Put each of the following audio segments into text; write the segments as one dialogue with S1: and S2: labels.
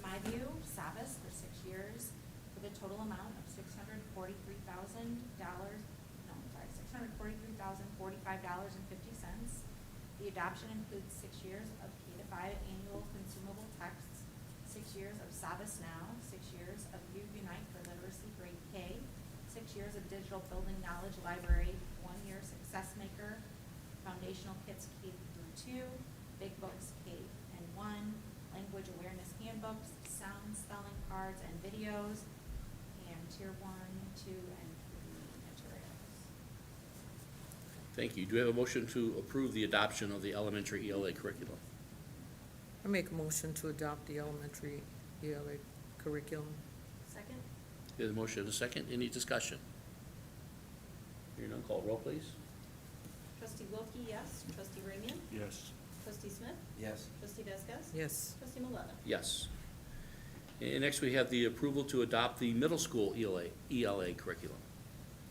S1: Skyview Savas for six years for the total amount of six hundred forty-three thousand dollars, no, I'm sorry, six hundred forty-three thousand forty-five dollars and fifty cents. The adoption includes six years of K to five annual consumable texts, six years of Savas Now, six years of U Unite for Literacy Grade K, six years of Digital Building Knowledge Library, one year Success Maker, Foundational Kits K through two, Big Books K and one, Language Awareness Handbooks, Sound Spelling Cards and Videos, and Tier one, two, and three materials.
S2: Thank you. Do we have a motion to approve the adoption of the elementary ELA curriculum?
S3: I make a motion to adopt the elementary ELA curriculum.
S1: Second?
S2: There's a motion and a second. Any discussion? Hearing none, call roll, please.
S4: Trustee Wilkie, yes. Trustee Ramian?
S5: yes,
S4: Trustee Smith?
S6: yes,
S4: Trustee Vasquez?
S3: Yes,
S4: Trustee Maleta?
S2: Yes. And next, we have the approval to adopt the middle school E ELA, ELA curriculum.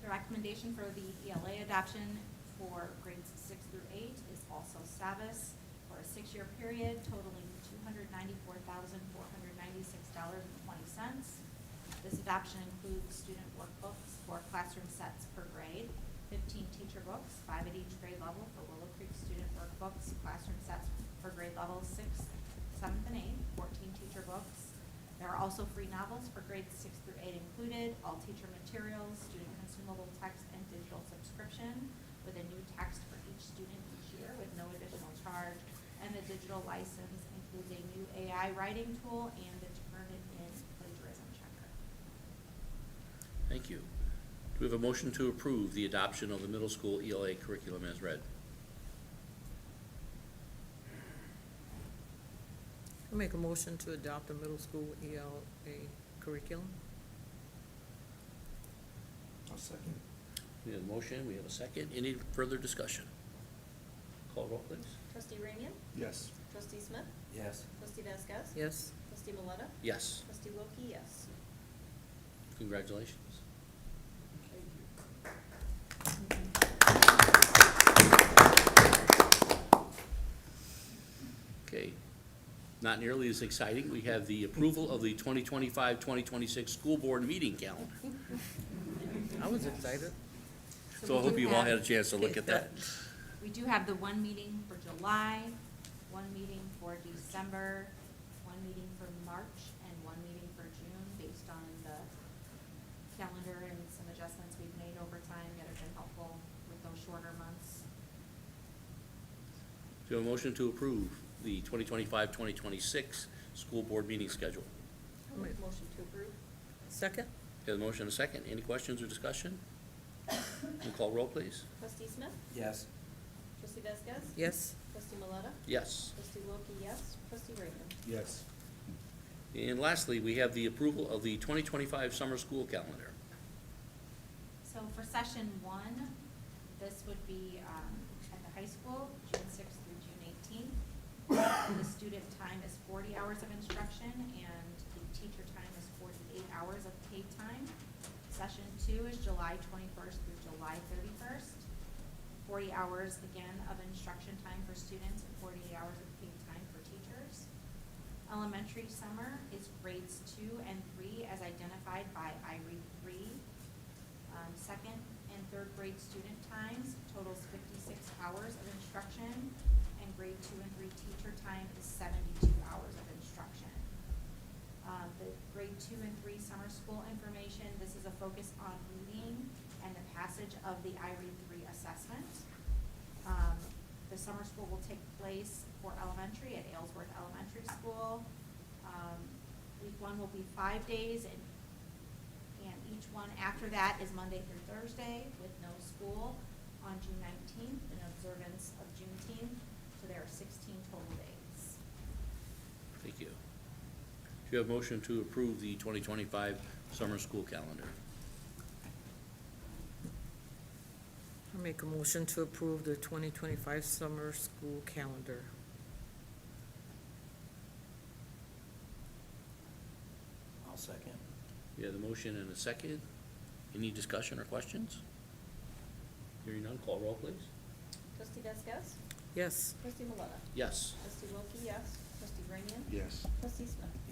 S1: The recommendation for the ELA adoption for grades six through eight is also Savas for a six-year period totaling two hundred ninety-four thousand, four hundred ninety-six dollars and twenty cents. This adoption includes student workbooks, four classroom sets per grade, fifteen teacher books, five at each grade level for Willow Creek student workbooks, classroom sets per grade level sixth, seventh, and eighth, fourteen teacher books, there are also free novels for grades six through eight included, all teacher materials, student consumable text, and digital subscription with a new text for each student each year with no additional charge. And the digital license includes a new AI writing tool and a Turnitin plagiarism checker.
S2: Thank you. Do we have a motion to approve the adoption of the middle school ELA curriculum as read?
S3: I make a motion to adopt the middle school ELA curriculum.
S6: I'll second.
S2: We have a motion, we have a second. Any further discussion? Call roll, please.
S4: Trustee Ramian?
S5: yes,
S4: Trustee Smith?
S6: Yes,
S4: Trustee Vasquez?
S3: Yes,
S4: Trustee Maleta?
S2: Yes.
S4: Trustee Wilkie, yes.
S2: Congratulations. Okay, not nearly as exciting, we have the approval of the 2025-2026 school board meeting calendar.
S3: I was excited.
S2: So I
S1: we
S2: hope
S1: do
S2: you've all
S1: have-
S2: had a chance to look at that.
S1: We do have the one meeting for July, one meeting for December, one meeting for March, and one meeting for June, based on the calendar and some adjustments we've made over time that have been helpful with those shorter months.
S2: Do you have a motion to approve the 2025-2026 school board meeting schedule?
S4: I'll make a motion to approve.
S3: Second?
S2: Have a motion and a second, any questions or discussion? And call roll, please.
S4: Trustee Smith?
S6: yes,
S4: Trustee Vasquez?
S3: Yes,
S4: Trustee Maleta?
S2: Yes.
S4: Trustee Wilkie, yes. Trustee Ramian?
S5: yes,
S2: And lastly, we have the approval of the 2025 summer school calendar.
S1: So for session one, this would be um, at the high school, June sixth through June eighteenth. The student time is forty hours of instruction and the teacher time is forty-eight hours of paid time. Session two is July twenty-first through July thirty-first. Forty hours again of instruction time for students and forty-eight hours of paid time for teachers. Elementary summer is grades two and three as identified by IRE three. Um, second and third grade student times totals fifty-six hours of instruction, and grade two and three teacher time is seventy-two hours of instruction. Uh, the grade two and three summer school information, this is a focus on reading and the passage of the IRE three assessment. Um, the summer school will take place for elementary at Aylesworth Elementary School. Um, week one will be five days and and each one after that is Monday through Thursday with no school on June nineteenth in observance of Juneteenth. So there are sixteen total days.
S2: Thank you. Do you have a motion to approve the 2025 summer school calendar?
S3: I make a motion to approve the twenty twenty-five summer school calendar.
S6: I'll second.
S2: We have a motion and a second. Any discussion or questions? Hearing none, call roll, please.
S4: Trustee Vasquez?
S3: Yes.
S4: Trustee Maleta?
S2: Yes.
S4: Trustee Wilkie, yes. Trustee Ramian?
S5: yes.
S4: Trustee Smith?